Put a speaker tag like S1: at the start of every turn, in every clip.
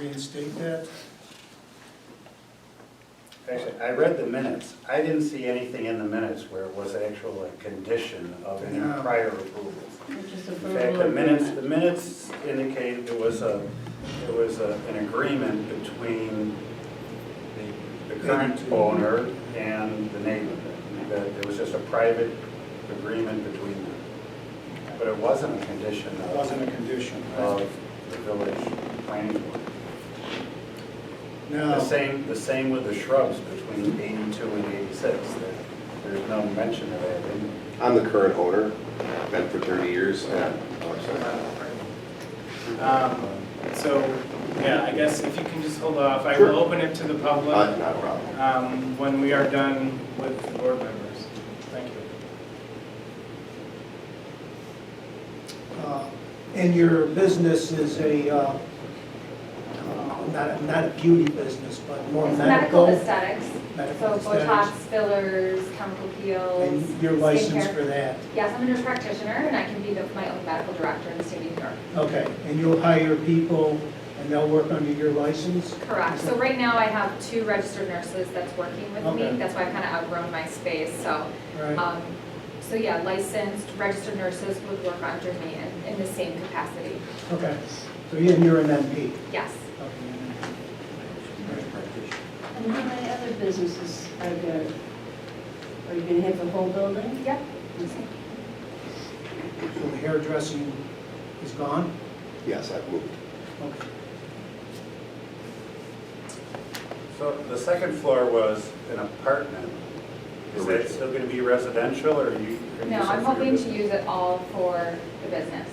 S1: reinstate that?
S2: Actually, I read the minutes. I didn't see anything in the minutes where it was actual a condition of any
S1: No.
S2: prior approvals.
S3: Which is
S2: In fact,
S3: approval
S2: the
S3: of
S2: minutes,
S3: minutes.
S2: the minutes indicate it was a, it was a- an agreement between the the current owner and the neighbor. That it was just a private agreement between them. But it wasn't a condition
S1: That
S2: of,
S1: wasn't a condition, right?
S2: of the village planning board. The
S1: Now,
S2: same, the same with the shrubs between 82 and 86. There- There's no mention of that in
S4: I'm the current owner, been for 30 years. and- oh, I'm sorry.
S5: Um, So, yeah, I guess if you can just hold off, I
S4: Sure.
S5: will open it to the
S4: Not
S5: public
S4: not a problem.
S5: um, when we are done with the board members. Thank you.
S6: Uh, And your business is a, uh, uh, not, a- not a beauty business, but more
S3: It's
S6: medical?
S3: medical aesthetics, so
S6: Medical
S3: Botox,
S6: aesthetics.
S3: fillers, chemical peels.
S6: And you're licensed
S3: skincare.
S6: for that?
S3: Yes, I'm a nurse practitioner and I can be the- my own medical director in the state of New York.
S6: Okay, and you'll hire people and they'll work under your license?
S3: Correct. So right now I have two registered nurses that's working with me.
S6: Okay.
S3: That's why I've kind of outgrown my space, so.
S6: Right,
S3: um, So yeah, licensed, registered nurses would work under me in, in the same capacity.
S6: okay. So you- and you're an MP?
S3: Yes.
S6: Okay, you're an MP.
S7: And how many other businesses are there? Are you gonna have the whole building?
S3: Yep.
S6: So the hairdressing is gone?
S4: Yes, I've moved.
S6: Okay.
S2: So the second floor was an apartment. Is that
S4: Original.
S2: still going to be residential, or are you? are you
S3: No, I'm
S2: using for your
S3: hoping to
S2: business?
S3: use it all for the business.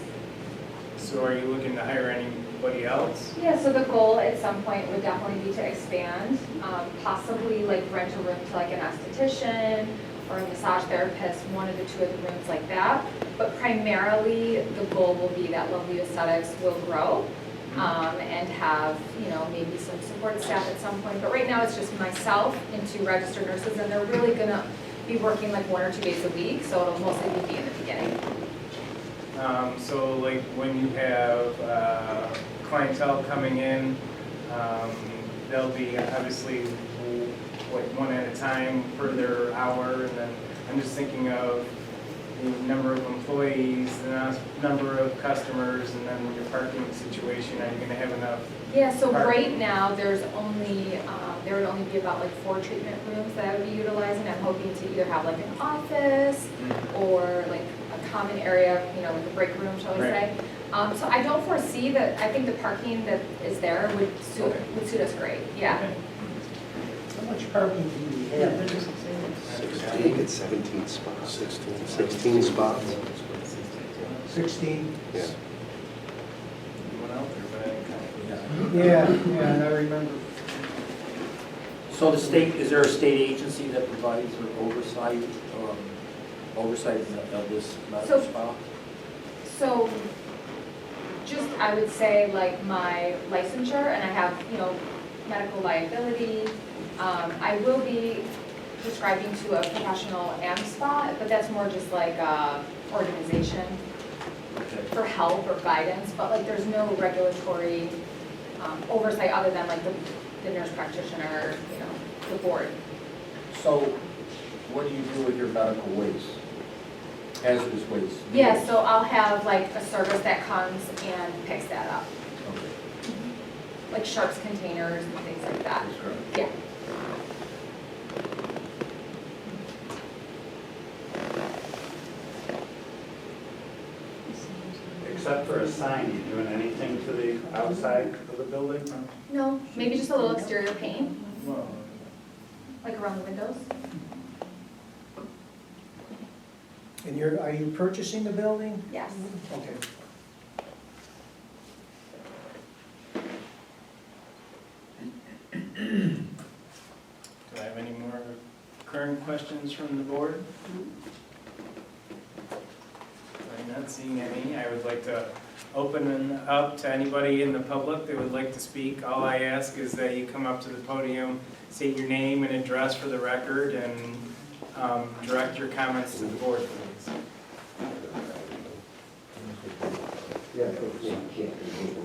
S5: So are you looking to hire anybody else?
S3: Yeah, so the goal at some point would definitely be to expand, um, possibly like rent a room to like an esthetician or a massage therapist, one of the two of the rooms like that. But primarily, the goal will be that Lovely Aesthetics will grow um, and have, you know, maybe some support staff at some point. But right now, it's just myself and two registered nurses, and they're really gonna be working like one or two days a week, so it'll mostly be me in the beginning.
S5: Um, So like when you have uh, clientele coming in, um, they'll be obviously like one at a time for their hour. And then I'm just thinking of the number of employees, the nas- number of customers, and then your parking situation. Are you going to have enough?
S3: Yeah, so
S5: Right.
S3: right now, there's only, um, there would only be about like four treatment rooms that I would be utilizing. I'm hoping to either have like an office or like a common area, you know, like a break room, shall we say. Um, So I don't foresee that, I think the parking that is there would suit,
S5: Okay.
S3: would suit us great, yeah.
S6: How much parking do you
S7: Yeah,
S6: have?
S7: they're just excited.
S4: I think it's 17 spots. 16. 16 spots.
S6: 16?
S4: Yeah.
S5: Anyone out there, but I didn't count.
S6: Yeah, yeah, and I remember.
S8: So the state, is there a state agency that provides or oversight, um, oversight of this medical
S3: So-
S8: spa?
S3: So just, I would say like my licensure and I have, you know, medical liability. Um, I will be prescribing to a professional AM spa, but that's more just like a organization
S8: Okay.
S3: for help or guidance, but like there's no regulatory um, oversight other than like the, the nurse practitioner, you know, the board.
S8: So what do you do with your medical waste? Hazardous waste?
S3: Yeah, so I'll have like a service that comes and picks that up,
S8: Okay.
S3: like sharps containers and things like that.
S8: That's correct.
S3: Yeah.
S2: Except for a sign, you doing anything to the outside of the building?
S3: No, maybe just a little exterior paint,
S5: Well,
S3: like around the windows.
S6: And you're, are you purchasing the building?
S3: Yes.
S6: Okay.
S5: Do I have any more current questions from the board? I'm not seeing any. I would like to open it up to anybody in the public that would like to speak. All I ask is that you come up to the podium, state your name and address for the record, and um, direct your comments to the board, please.
S4: Yeah.